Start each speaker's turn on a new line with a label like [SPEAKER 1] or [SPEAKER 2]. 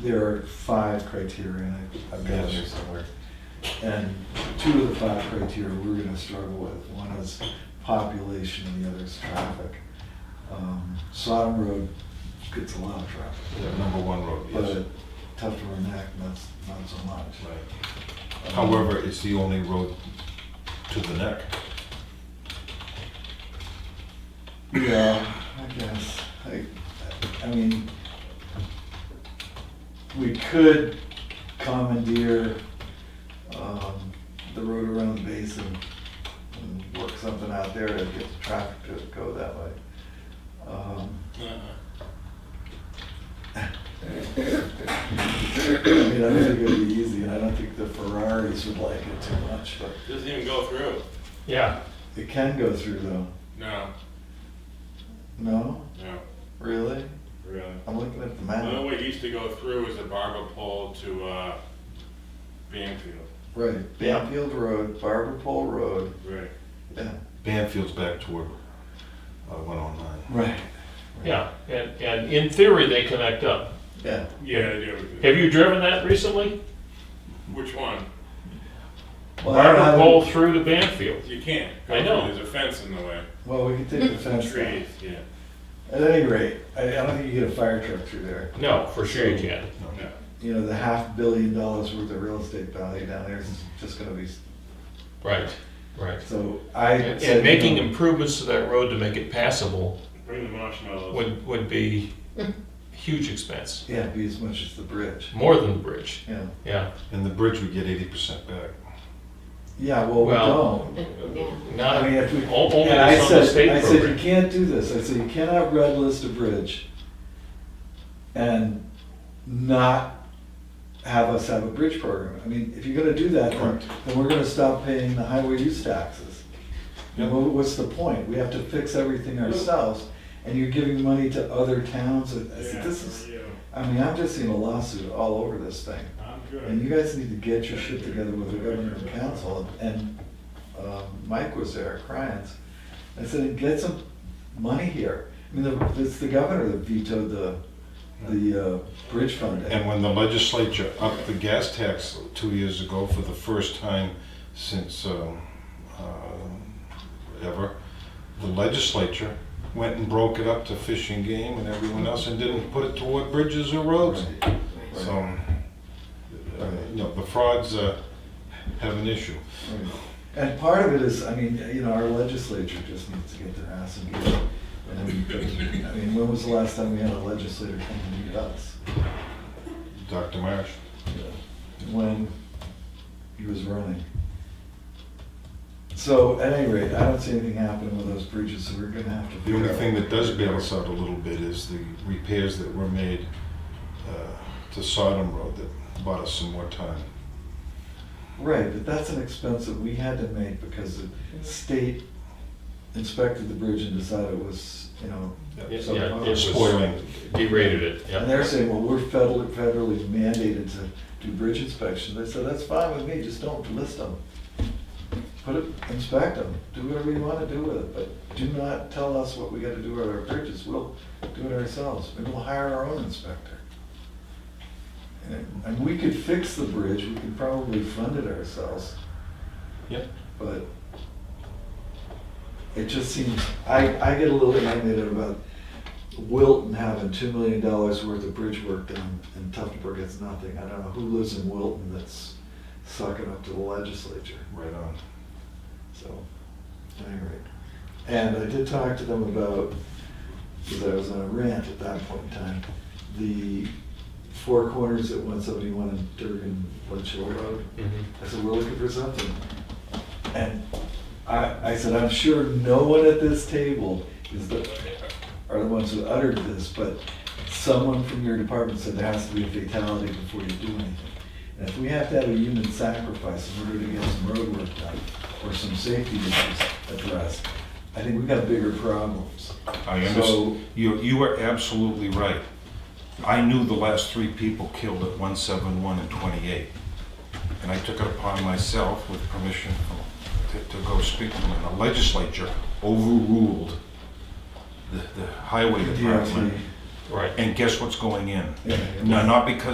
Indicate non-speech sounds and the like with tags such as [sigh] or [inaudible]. [SPEAKER 1] there are five criteria, and I- I've got it here somewhere. And two of the five criteria we're gonna struggle with. One is population and the other is traffic. Um, Sodom Road gets a lot of
[SPEAKER 2] The
[SPEAKER 1] traffic,
[SPEAKER 2] number one road, yes.
[SPEAKER 1] but Tufton and Acton, that's not so much.
[SPEAKER 2] Right. However, it's the only road to the neck.
[SPEAKER 1] Yeah, I guess. I, I mean, we could commandeer, um, the road around the basin and work something out there to get the traffic to go that way. Um, I mean, I don't think it'd be easy, and I don't think the Ferraris would like it too much, but
[SPEAKER 3] Doesn't even go through.
[SPEAKER 4] Yeah,
[SPEAKER 1] it can go through though.
[SPEAKER 3] No,
[SPEAKER 1] No?
[SPEAKER 3] no,
[SPEAKER 1] Really?
[SPEAKER 3] really.
[SPEAKER 1] I'm looking at the
[SPEAKER 3] The only
[SPEAKER 1] map.
[SPEAKER 3] way it used to go through is the barber pole to, uh, Banfield.
[SPEAKER 1] Right, Bamfield Road, Barber Pole Road,
[SPEAKER 3] Right.
[SPEAKER 1] yeah.
[SPEAKER 2] Banfield's back toward uh, 109.
[SPEAKER 1] Right.
[SPEAKER 4] yeah, and, and in theory, they connect up.
[SPEAKER 1] Yeah.
[SPEAKER 3] Yeah, they do.
[SPEAKER 4] Have you driven that recently?
[SPEAKER 3] Which one?
[SPEAKER 1] Well, I
[SPEAKER 4] Barber
[SPEAKER 1] haven't-
[SPEAKER 4] pole through to Banfield.
[SPEAKER 3] You can't. go
[SPEAKER 4] I know.
[SPEAKER 3] through. There's a fence in the way.
[SPEAKER 1] Well, we can take the
[SPEAKER 4] [laughs]
[SPEAKER 1] fence down.
[SPEAKER 3] Trees, yeah.
[SPEAKER 1] At any rate, I, I don't think you get a fire truck through there.
[SPEAKER 4] No, for sure you can.
[SPEAKER 3] No.
[SPEAKER 1] You know, the half billion dollars worth of real estate value down there is just gonna be,
[SPEAKER 4] Right, right.
[SPEAKER 1] so I.
[SPEAKER 4] And
[SPEAKER 1] said
[SPEAKER 4] and making
[SPEAKER 1] no.
[SPEAKER 4] improvements to that road to make it passable
[SPEAKER 3] Bring the marshmallows.
[SPEAKER 4] would, would be huge expense,
[SPEAKER 1] Yeah, be as much as the bridge,
[SPEAKER 4] more than the bridge,
[SPEAKER 1] yeah.
[SPEAKER 4] yeah.
[SPEAKER 2] And the bridge would get 80% back.
[SPEAKER 1] Yeah, well, we
[SPEAKER 4] Well,
[SPEAKER 1] don't.
[SPEAKER 4] Not,
[SPEAKER 1] I mean,
[SPEAKER 4] only
[SPEAKER 1] if we. and I
[SPEAKER 4] it's on the
[SPEAKER 1] said-
[SPEAKER 4] state
[SPEAKER 1] I said, you
[SPEAKER 4] program.
[SPEAKER 1] can't do this. I said, you cannot red list a bridge and not have us have a bridge program. I mean, if you're gonna do that, then,
[SPEAKER 2] Correct.
[SPEAKER 1] then we're gonna stop paying the highway use taxes. You
[SPEAKER 2] Yep.
[SPEAKER 1] know, what's the point? We have to fix everything ourselves and you're giving money to other towns. and I said,
[SPEAKER 3] Yeah,
[SPEAKER 1] this
[SPEAKER 3] for
[SPEAKER 1] is,
[SPEAKER 3] you.
[SPEAKER 1] I mean, I've just seen a lawsuit all over this thing.
[SPEAKER 3] I'm good.
[SPEAKER 1] And you guys need to get your shit together with the government and council, and um, Mike was there, Cryans. I said, get some money here. I mean, the- it's the governor that vetoed the, the uh, bridge fund.
[SPEAKER 2] And when the legislature upped the gas tax two years ago for the first time since um, uh, ever, the legislature went and broke it up to fishing game and everyone else and didn't put it toward bridges or roads. So, um,
[SPEAKER 1] Right.
[SPEAKER 2] uh, you know, the frauds uh, have an issue.
[SPEAKER 1] And part of it is, I mean, you know, our legislature just needs to get their ass in gear. And, I mean, when was the last time we had a legislator come and meet us?
[SPEAKER 2] Dr. Marsh,
[SPEAKER 1] when he was running. So at any rate, I don't see anything happening with those bridges, so we're gonna have to.
[SPEAKER 2] the
[SPEAKER 1] figure
[SPEAKER 2] only
[SPEAKER 1] out-
[SPEAKER 2] thing that does bail us out a little bit is the repairs that were made uh, to Sodom Road that bought us some more time.
[SPEAKER 1] Right, but that's an expense that we had to make because the state inspected the bridge and decided it was, you know,
[SPEAKER 4] Yeah,
[SPEAKER 1] so-
[SPEAKER 4] yeah, it's
[SPEAKER 2] Spoiling.
[SPEAKER 4] Derated it, yeah.
[SPEAKER 1] and they're saying, well, we're federally, federally mandated to do bridge inspections. They said, that's fine with me, just don't list them. Put it, inspect them, do whatever you wanna do with it, but do not tell us what we gotta do with our bridges. We'll do it ourselves. Maybe we'll hire our own inspector. And, and we could fix the bridge, we could probably fund it ourselves.
[SPEAKER 4] Yep.
[SPEAKER 1] But it just seems, I, I get a little animated about Wilton having two million dollars worth of bridge work done and Tuftonburg gets nothing. I don't know who lives in Wilton that's sucking up to the legislature,
[SPEAKER 2] Right on.
[SPEAKER 1] so, at any rate. And I did talk to them about, because I was on a rant at that point in time, the four corners at one seventy-one and Durgan Ledgehill Road.
[SPEAKER 4] Mhm.
[SPEAKER 1] I said, we're looking for something. And I, I said, I'm sure no one at this table is the, are the ones who uttered this, but someone from your department said there has to be a fatality before you do anything. And if we have to have a human sacrifice in order to get some road work done, or some safety issues addressed, I think we've got bigger problems.
[SPEAKER 2] I
[SPEAKER 1] So-
[SPEAKER 2] understand, you, you are absolutely right. I knew the last three people killed at 171 and 28. And I took it upon myself with permission from- to, to go speak to them. And the legislature overruled the, the highway
[SPEAKER 1] DOT.
[SPEAKER 2] department.
[SPEAKER 4] Right.
[SPEAKER 2] And guess what's going in?
[SPEAKER 1] Yeah.
[SPEAKER 2] No, not because